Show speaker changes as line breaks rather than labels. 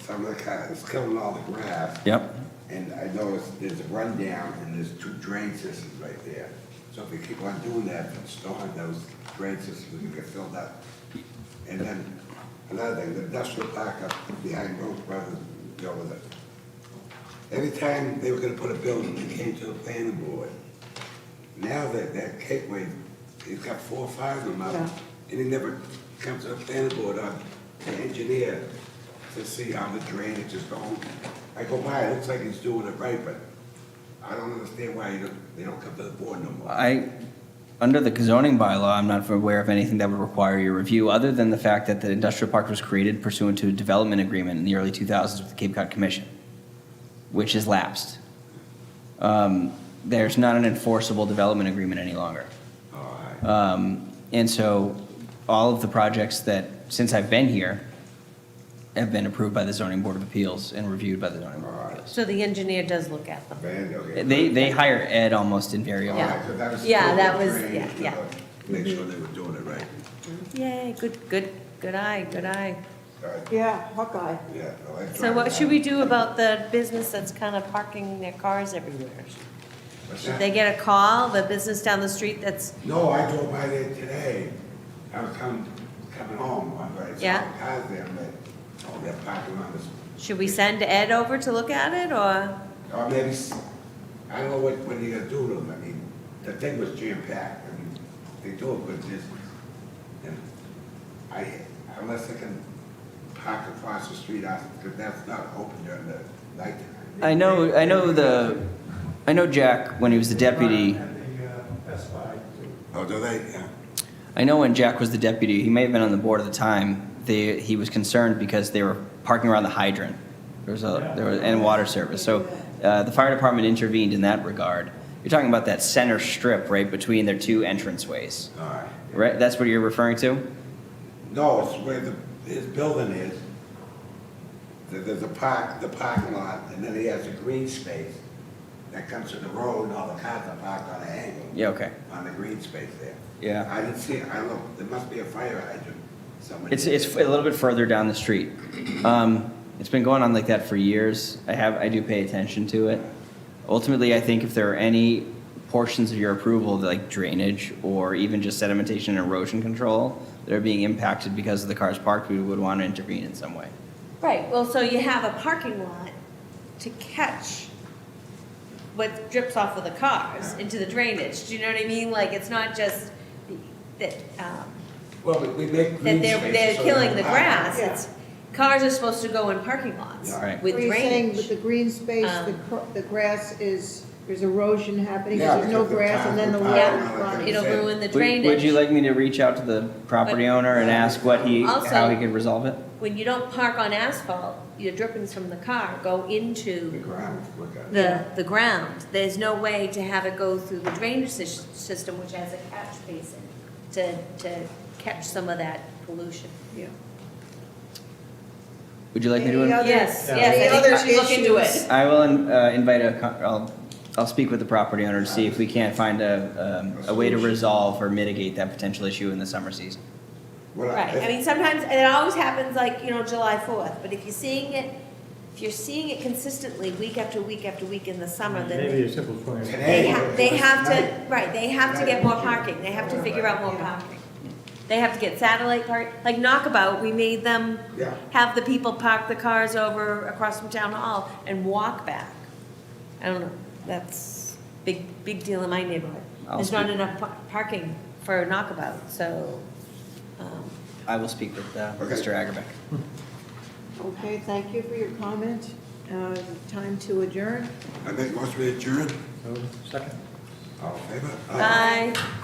some of the kind, "Ah, it's killing all the grass.
Yep.
And I know it's, there's a rundown and there's two drain systems right there. So if we keep on doing that, then stone, those drain systems will get filled up. And then another thing, the industrial park up behind Rose Brothers, go with it. Every time they were gonna put a building, they came to the planning board. Now that, that Gateway, it's got four or five of them out,
Yeah.
and it never comes to the planning board or the engineer to see how the drainage is going. I go by, it looks like he's doing it right, but I don't understand why you don't, they don't come to the board no more.
I, under the zoning bylaw, I'm not aware of anything that would require your review, other than the fact that the industrial park was created pursuant to a development agreement in the early 2000s with the Cape Cod Commission, which has lapsed. Um, There's not an enforceable development agreement any longer.
All right.
Um, And so all of the projects that, since I've been here, have been approved by the zoning board of appeals and reviewed by the zoning board of appeals.
So the engineer does look at them.
Van, okay.
They, they hire Ed almost invariably.
Yeah.
Alright, so that was
Yeah,
still
that was-
drainage,
yeah, yeah.
uh, Make sure they were doing it right.
Yay, good, good, good eye, good eye.
Alright,
Yeah, Hawkeye.
yeah, no, I
So what
tried
should
that.
we do about the business that's kind of parking their cars everywhere?
What's
Should
that?
they get a call, the business down the street that's,
No, I drove by there today. I was coming, coming home, I was
Yeah.
like, cars there, but, oh, they're parking on this.
should we send Ed over to look at it, or?
Or maybe, s- I don't know what, what they gonna do to them, I mean, the thing was jam packed, I mean, they do a good business. And I, unless they can park across the street, I, cause that's not open during the night.
I know, I know the, I know Jack when he was the deputy.
At the uh, Best Buy, too.
Oh, do they, yeah,
I know when Jack was the deputy, he may have been on the board at the time. They, he was concerned because they were parking around the hydrant. There was a, there was, and water service. So uh, the fire department intervened in that regard. You're talking about that center strip right between their two entranceways,
alright.
right? That's what you're referring to?
No, it's where the, his building is. There- There's a park, the parking lot, and then he has a green space that comes to the road, and all the cars are parked on an angle.
Yeah, okay.
On the green space there.
Yeah.
I didn't see, I looked, there must be a fire hydrant somewhere.
It's, it's a little bit further down the street. Um, it's been going on like that for years. I have, I do pay attention to it. Ultimately, I think if there are any portions of your approval, like drainage or even just sedimentation and erosion control, that are being impacted because of the cars parked, we would want to intervene in some way.
Right, well, so you have a parking lot to catch what drips off of the cars into the drainage, do you know what I mean? Like, it's not just that, um,
Well, we we make green
that
spaces.
they're, they're
so
killing the
they're
grass,
parked.
it's, cars are supposed to go in parking lots
Yeah.
Right.
with
Are you saying
drainage.
with the green space, the,
Um,
cr- the grass is, there's erosion happening,
Yeah,
because there's no
because the
grass, and then the
time-
water
Yeah.
Right.
running?
It'll ruin the
Would- Would you
drainage.
like me to reach out to the property owner and ask what he, how he
Also-
could resolve it?
When you don't park on asphalt, your drippings from the car go
The
into
ground, look at it.
the, the ground. There's no way to have it go through the drainage sys- system, which has a catch basin, to, to catch some of that pollution.
Yeah.
Would you like me to?
Any
in-
other-
Yes,
Yeah.
yes, I
Any
think
other
we should look into
issues?
it.
I will uh, invite a, co- I'll, I'll speak with the property owner to see if we can't find a, um, a way to resolve or mitigate that potential issue in the summer season.
Well,
Right, I mean, sometimes, and it always happens like, you know, July fourth, but if you're seeing it, if you're seeing it consistently, week after week after week in the summer, then
Maybe a simple plan.
They
Today-
ha they have to, right, they have to get more parking, they have to figure out more parking. They have to get satellite park, like Knockabout, we made them
Yeah.
have the people park the cars over across from town hall and walk back. I don't know, that's big, big deal in my neighborhood.
I'll
There's not
speak-
enough pa- parking for Knockabout, so, um,
I will speak with uh,
Okay.
Mr. Agarbeck.
Okay, thank you for your comment. Uh, Time to adjourn.
I make most of it adjourned,
So, Second.
all in favor? Aye.
bye.